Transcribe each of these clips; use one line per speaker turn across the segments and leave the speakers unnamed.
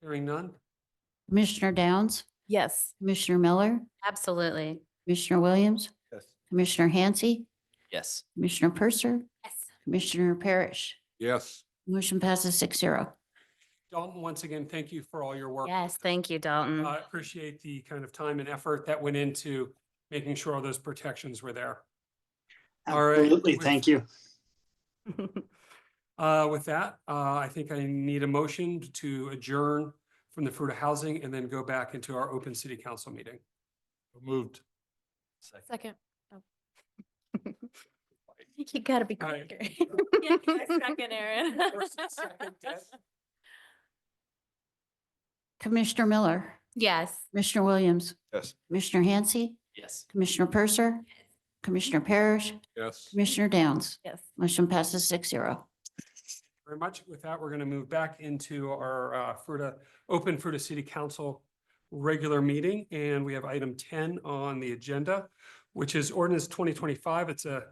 Hearing none?
Commissioner Downs,
Yes.
Commissioner Miller,
Absolutely.
Commissioner Williams,
Yes.
Commissioner Hansi,
Yes.
Commissioner Purser,
Yes.
Commissioner Parrish.
Yes.
Motion passes six zero.
Dalton, once again, thank you for all your work. Uh,
Yes, thank you, Dalton.
I appreciate the kind of time and effort that went into making sure all those protections were there. All right.
Absolutely, thank you.
Uh, with that, uh, I think I need a motion to adjourn from the Fruta Housing and then go back into our open city council meeting. Moved.
Second. Oh. You gotta be
All right.
quicker. Second, Aaron.
First and second, Deb.
Commissioner Miller,
Yes.
Commissioner Williams.
Yes.
Commissioner Hansi,
Yes.
Commissioner Purser, Commissioner Parrish,
Yes.
Commissioner Downs.
Yes.
Motion passes six zero.
Very much. With that, we're going to move back into our, uh, Fruta, open Fruta City Council regular meeting, and we have item ten on the agenda, which is ordinance twenty twenty-five. It's a,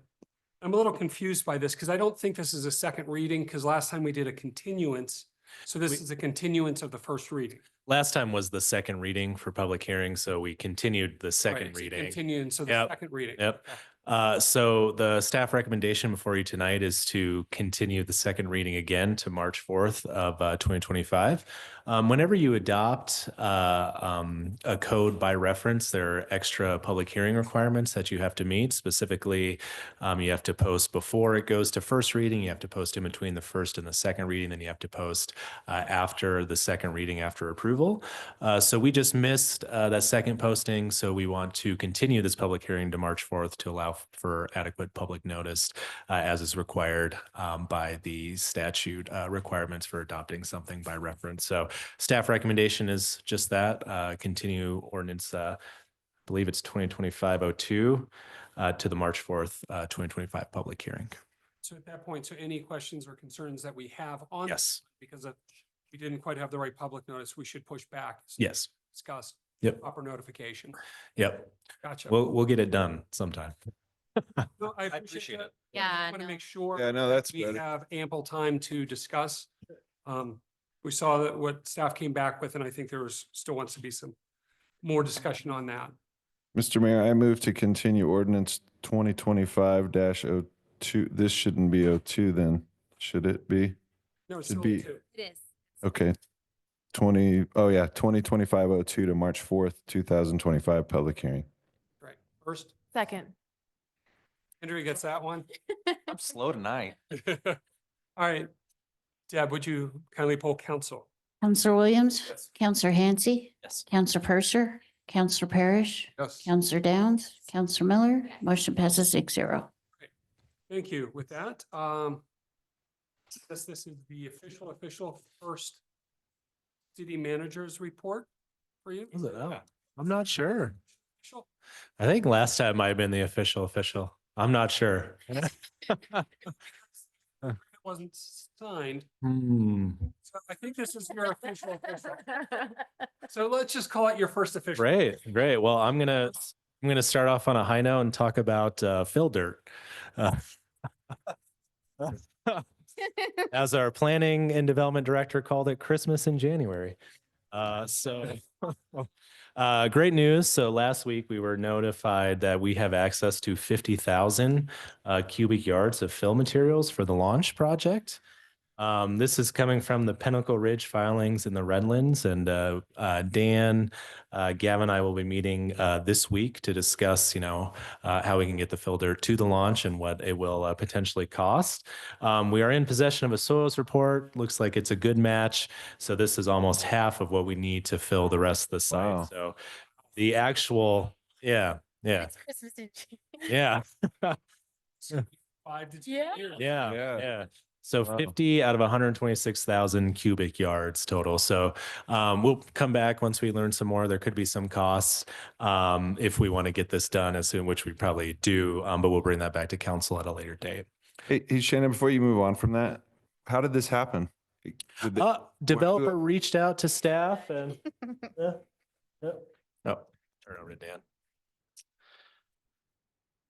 I'm a little confused by this because I don't think this is a second reading because last time we did a continuance. So this
We-
is a continuance of the first reading.
Last time was the second reading for public hearing, so we continued the
right?
second
It's a
reading.
Continuance, so the
Yep.
second reading.
Yep. Uh, so the staff recommendation before you tonight is to continue the second reading again to March fourth of uh, twenty twenty-five. Um, whenever you adopt uh, um, a code by reference, there are extra public hearing requirements that you have to meet. Specifically, um, you have to post before it goes to first reading. You have to post in between the first and the second reading. Then you have to post uh, after the second reading after approval. Uh, so we just missed uh, that second posting. So we want to continue this public hearing to March 4th to allow f- for adequate public notice uh, as is required um, by the statute uh, requirements for adopting something by reference. So staff recommendation is just that uh, continue ordinance, uh, I believe it's 2025-02 uh, to the March 4th, uh, 2025 public hearing.
So at that point, so any questions or concerns that we have on?
Yes.
Because of- we didn't quite have the right public notice, we should push back. so
Yes.
Discuss.
Yep.
Proper notification.
Yep.
Gotcha.
We'll, we'll get it done sometime.
No, I
appreciate
appreciate
it.
it.
Yeah,
Want to
no.
make sure.
Yeah, no, that's
We
better.
have ample time to discuss. Um, we saw that what staff came back with, and I think there was, still wants to be some more discussion on that.
Mr. Mayor, I move to continue ordinance twenty twenty-five dash oh two. This shouldn't be oh two then, should it be?
No, it's
Should
still
be-
two.
It is.
Okay. Twenty, oh yeah, twenty twenty-five oh two to March fourth, two thousand twenty-five, public hearing.
Right. First,
Second.
Andrea gets that one.
I'm slow tonight.
All right. Deb, would you kindly poll council?
Counselor Williams,
Yes.
Counselor Hansi,
Yes.
Counselor Purser, Counselor Parrish,
Yes.
Counselor Downs, Counselor Miller. Motion passes six zero.
Thank you. With that, um, since this is the official, official first city manager's report for you.
Was it? Oh, I'm not sure.
Official.
I think last time might have been the official official. I'm not sure.
It wasn't signed.
Hmm,
So I think this is your official, official. So let's just call it your first official.
Great, great. Well, I'm gonna I'm gonna start off on a high note and talk about uh, fill dirt. Uh, as our planning and development director called it, Christmas in January. Uh, so, uh, great news. So last week we were notified that we have access to 50,000 uh, cubic yards of fill materials for the launch project. Um, this is coming from the Pinnacle Ridge filings in the Redlands and, uh, uh, Dan, uh, Gavin and I will be meeting, uh, this week to discuss, you know, uh, how we can get the filter to the launch and what it will uh, potentially cost. Um, we are in possession of a soils report. Looks like it's a good match. So this is almost half of what we need to fill the rest of the site.
Wow.
So the actual, yeah, yeah,
It's Christmas in June.
yeah,
Five to ten
Yeah.
years.
yeah,
Yeah.
yeah. So
Wow.
50 out of 126,000 cubic yards total. So um, we'll come back once we learn some more. There could be some costs um, if we want to get this done as soon, which we probably do, um, but we'll bring that back to council at a later date.
Hey, hey, Shannon, before you move on from that, how did this happen? Did the-
Uh, developer reached out to staff and. yeah, yeah. Oh, turn it over to Dan.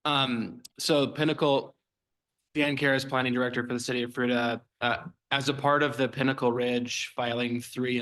Um, so Pinnacle, Dan Karas, Planning Director for the City of Fruta, uh, as a part of the Pinnacle Ridge filing three